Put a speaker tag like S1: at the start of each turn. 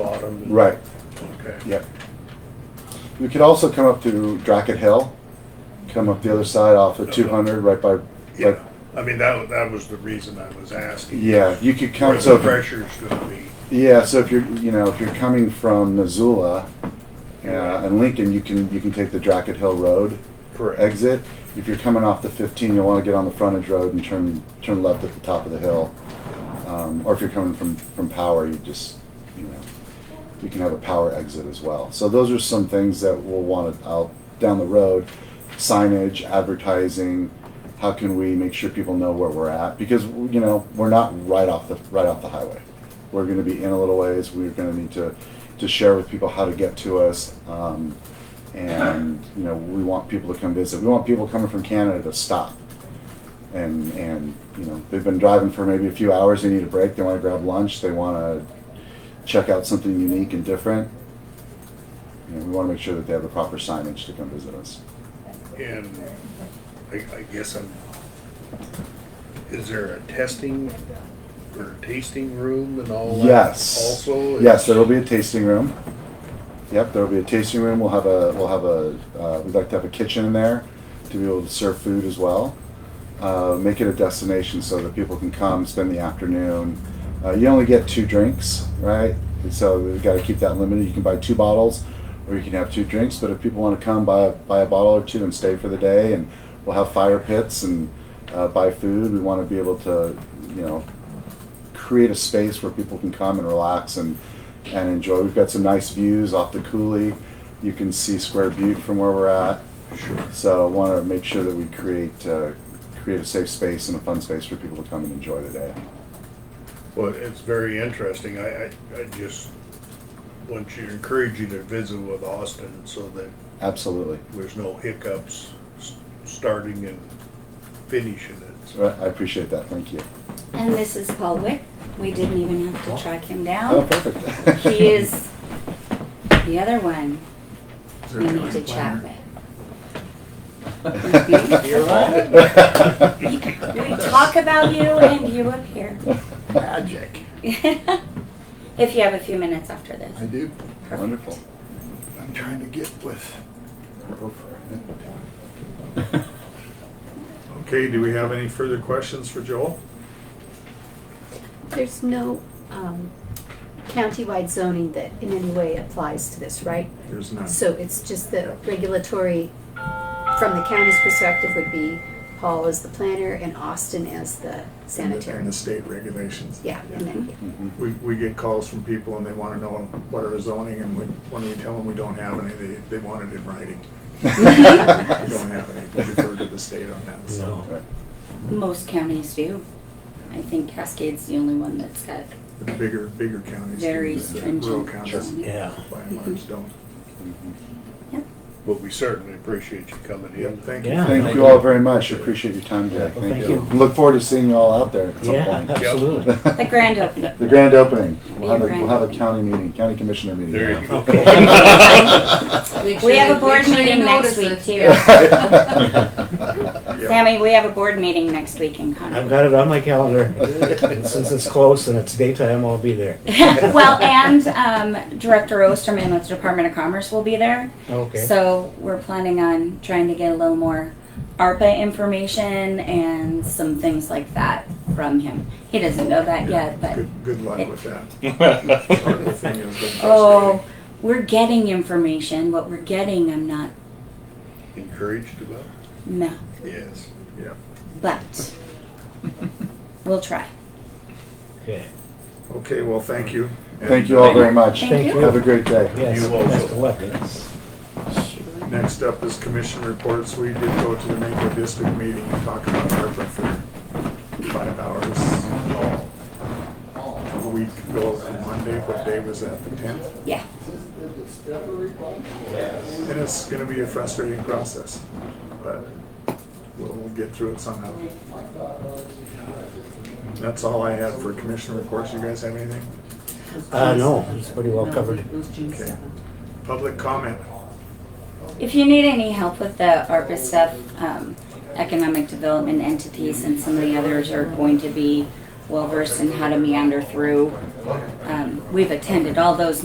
S1: bottom. and-
S2: Right,
S1: Okay.
S2: yep. You could also come up to Dracket Hill, come up the other side off of two hundred, right by,
S1: Yeah,
S2: like,
S1: I mean, that, that was the reason I was asking.
S2: yeah, you could
S1: Where
S2: come, so.
S1: the pressure's gonna be.
S2: Yeah, so if you're, you know, if you're coming from Missoula uh, and Lincoln, you can you can take the Dracket Hill Road exit. If you're coming off the 15, you'll want to get on the frontage road and turn turn left at the top of the hill. Um, or if you're coming from from Power, you just you know you can have a Power exit as well. So those are some things that we'll want to out down the road. Signage, advertising. How can we make sure people know where we're at? Because you know we're not right off the right off the highway. We're going to be in a little ways. We're going to need to to share with people how to get to us. Um, and you know we want people to come visit. We want people coming from Canada to stop, and and you know they've been driving for maybe a few hours. They need a break. They want to grab lunch. They want to check out something unique and different. You know, we want to make sure that they have the proper signage to come visit us.
S1: And I, I guess I'm, is there a testing or tasting room and all that?
S2: Yes.
S1: Also?
S2: Yes, there will be a tasting room. Yep, there will be a tasting room. We'll have a, we'll have a, uh, we'd like to have a kitchen in there to be able to serve food as well. Uh, make it a destination so that people can come, spend the afternoon. Uh, you only get two drinks, right? And so we've got to keep that limited. You can buy two bottles or you can have two drinks, but if people want to come, buy, a- buy a bottle or two and stay for the day and we'll have fire pits and, uh, buy food. We want to be able to, you know, create a space where people can come and relax and, and enjoy. We've got some nice views off the coulee. You can see Square Butte from where we're at.
S1: Sure.
S2: So I want to make sure that we create, uh, create a safe space and a fun space for people to come and enjoy the day.
S1: Well, it's very interesting. I, I, I just want you, encourage you to visit with Austin so that
S2: Absolutely.
S1: there's no hiccups s- starting and finishing it.
S2: So I I appreciate that. Thank you.
S3: And this is Paul Wick. We didn't even have to track
S2: Oh,
S3: him down.
S2: perfect.
S3: He is the other one
S4: Is there
S3: we
S4: a
S3: need to
S4: time
S3: chat
S4: planner?
S3: with.
S4: You're right.
S3: We talk about you and you up here.
S4: Magic.
S3: If you have a few minutes after this.
S4: I do.
S3: Perfect.
S2: Wonderful.
S4: I'm trying to get with her friend.
S5: Okay, do we have any further questions for Joel?
S6: There's no um, countywide zoning that in any way applies to this, right?
S5: There's none.
S6: So it's just the regulatory, from the county's perspective, would be Paul as the planner and Austin as the
S5: And the-
S6: sanitary.
S5: And the state regulations.
S6: Yeah, and then,
S2: Mhm.
S5: We, we get calls from people and they wanna know what are zoning and we, when we tell them we don't have any, they, they want it in writing.
S2: Mm-hmm.
S5: We don't have any, we refer to the state on that, so.
S2: Right.
S3: Most counties do. I think Cascade's the only one that's got,
S5: The bigger, bigger counties. do,
S3: Very
S5: the Rural
S3: stringent.
S5: counties,
S3: Sure.
S7: Yeah,
S5: by and large, don't.
S2: Mhm.
S3: yeah.
S1: But we certainly appreciate you coming in.
S5: Yep, thank you.
S7: Yeah.
S2: Thank you all very much. Appreciate your time today.
S7: Well, thank you.
S2: Look forward to seeing you all out there at some
S7: yeah,
S2: point.
S7: absolutely.
S3: The grand opening.
S2: The grand opening. We'll
S3: Be a
S2: have a,
S3: grand
S2: we'll have a
S3: opening.
S2: county meeting, county commissioner meeting.
S1: There you go.
S8: Make
S3: We
S8: sure-
S3: have a board
S8: make sure you
S3: meeting next
S8: notice
S3: week
S8: it.
S3: too.
S2: Yeah.
S3: Sammy, we have a board meeting next week in Concord.
S7: I've got it on my calendar. And Since it's close and it's daytime, I'll be there.
S3: well, and um, Director Osterman with the Department of Commerce will be there.
S7: Okay.
S3: So we're planning on trying to get a little more ARPA information and some things like that from him. He doesn't know that yet, but
S5: Good, good luck with that. Part of the thing has been
S3: oh, we're getting information. What we're getting, I'm not,
S1: Encouraged about?
S3: no,
S1: Yes.
S5: frustrating. Yeah.
S3: but we'll try.
S7: Okay.
S5: Okay, well, thank you.
S2: Thank you all very much.
S3: Thank
S7: you.
S2: Have a great day.
S7: Yes,
S1: You also.
S7: best of luck. Yes.
S5: Next up is commission reports. We did go to the Naco District meeting and talk about ARPA for five hours. A week ago on Monday, what day was that, the tenth?
S3: Yeah.
S5: And it's gonna be a frustrating process, but we'll get through it somehow. That's all I have for commission reports. You guys have anything?
S7: Uh, no, it's pretty well
S8: No,
S7: covered.
S8: It was June
S5: Okay.
S8: seventh.
S5: Public comment?
S3: If you need any help with the ARPA stuff, um, economic development entities and some of the others are going to be well versed in how to meander through. Um, we've attended all those meetings.